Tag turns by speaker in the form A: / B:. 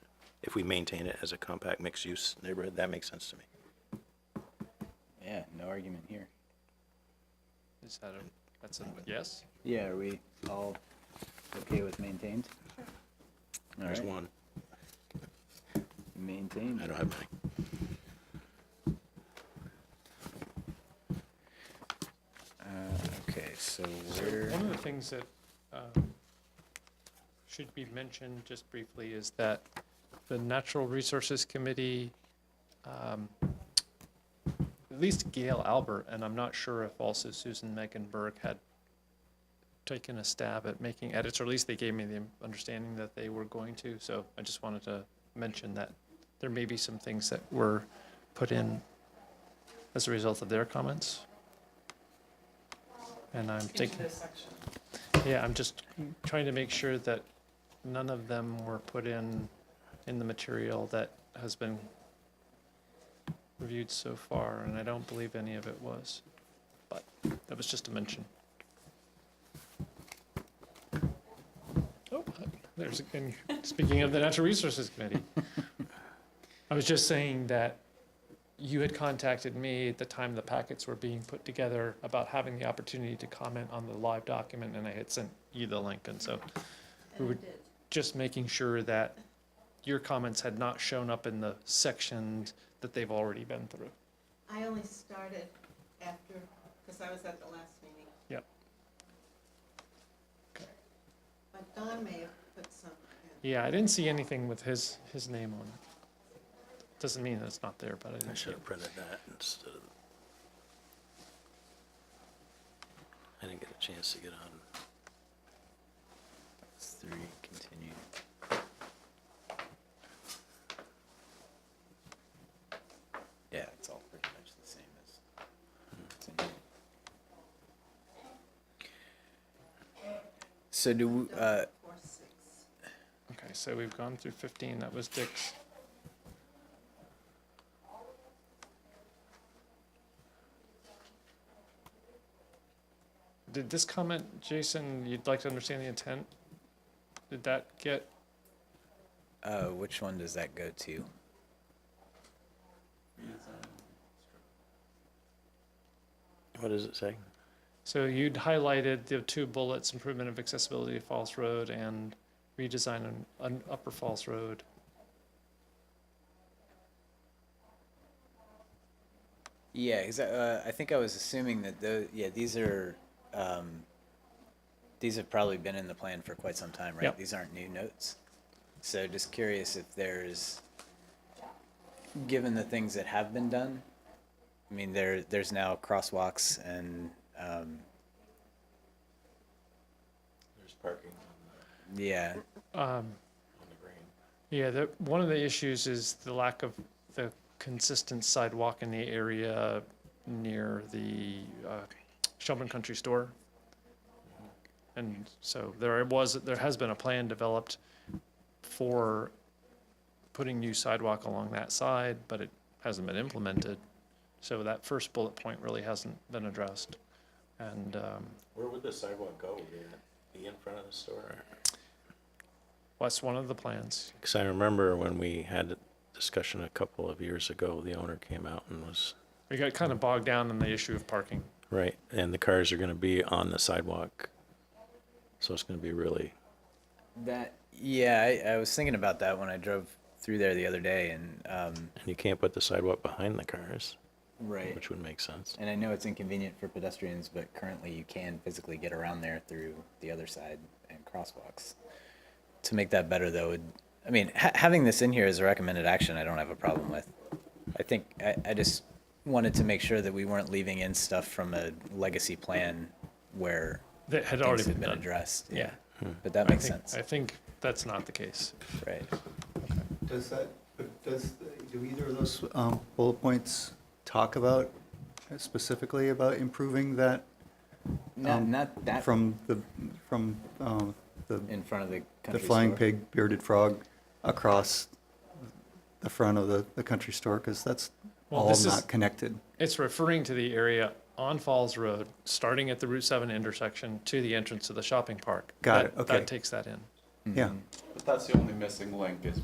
A: if we maintain it as a compact mixed-use neighborhood, that makes sense to me.
B: Yeah, no argument here.
C: Is that a, that's a yes?
B: Yeah, are we all okay with maintained? All
A: There's
B: right,
A: one.
B: maintained.
A: I don't have many.
B: Uh, okay, so
C: So
B: we're,
C: one of the things that um, should be mentioned just briefly is that the Natural Resources Committee, um, at least Gail Albert, and I'm not sure if also Susan Mecklenburg had taken a stab at making edits, or at least they gave me the understanding that they were going to. So I just wanted to mention that there may be some things that were put in as a result of their comments. And I'm thinking. Yeah, I'm just trying to make sure that none of them were put in, in the material that has been reviewed so far, and I don't believe any of it was. But that was just a mention. Oh, there's, again. speaking of the Natural Resources Committee, I was just saying that you had contacted me at the time the packets were being put together about having the opportunity to comment on the live document, and I had sent you the link, and so we were just making sure that your comments had not shown up in the sections that they've already been through.
D: I only started after, because I was at the last meeting.
C: Yep.
D: But Don may have put some in.
C: Yeah, I didn't see anything with his, his name on it. Doesn't mean that it's not there, but I
A: I
C: didn't see
A: should
C: it.
A: have printed that instead of. I didn't get a chance to get on.
B: it's three, continue. Yeah, it's all pretty much the same as. it's in here. So do, we- uh,
D: Four, six.
C: Okay, so we've gone through fifteen, that was Dick's. Did this comment, Jason, you'd like to understand the intent? Did that get,
B: uh, which one does that go to?
A: What does it say?
C: so you'd highlighted the two bullets, improvement of accessibility to Falls Road and redesign on, on Upper Falls Road.
B: Yeah, 'cause, uh, I think I was assuming that the yeah these are um, these have probably been in the plan for quite some time, right?
C: Yep.
B: These aren't new notes. So just curious if there's, given the things that have been done, I mean there there's now crosswalks and um,
A: There's parking
B: yeah
C: Um,
A: on the green.
C: Yeah, the, one of the issues is the lack of the consistent sidewalk in the area near the uh, Shelburne Country Store. And so there was, there has been a plan developed for putting new sidewalk along that side, but it hasn't been implemented. So that first bullet point really hasn't been addressed. And um,
A: Where would the sidewalk go? Would it be in front of the store?
C: that's one of the plans.
A: Because I remember when we had a discussion a couple of years ago, the owner came out and was,
C: We got kind of bogged down in the issue of parking.
A: right, and the cars are going to be on the sidewalk. So it's going to be really,
B: that yeah I, I was thinking about that when I drove through there the other day and um,
A: and you can't put the sidewalk behind the cars,
B: right
A: which would make sense.
B: And I know it's inconvenient for pedestrians, but currently you can physically get around there through the other side and crosswalks. To make that better, though, would, I mean, ha- having this in here as a recommended action, I don't have a problem with. I think, I, I just wanted to make sure that we weren't leaving in stuff from a legacy plan where
C: That had already
B: things had been
C: been done.
B: addressed.
C: Yeah.
B: But that
C: I
B: makes
C: think,
B: sense,
C: I think that's not the case.
B: right?
E: Um, Does that, but does, do either of those um, bullet points talk about, specifically about improving that
B: Not,
E: Um,
B: not that
E: from the, from um, the
B: in front of the
E: the
B: country
E: flying
B: store.
E: pig bearded frog across the front of the, the country store? Because that's
C: Well,
E: all
C: this is-
E: not connected.
C: It's referring to the area on Falls Road, starting at the Route 7 intersection to the entrance to the shopping park.
E: Got
C: That-
E: it, okay.
B: Mm-hmm.
C: That takes that in.
E: Yeah.
F: But that's the only missing link is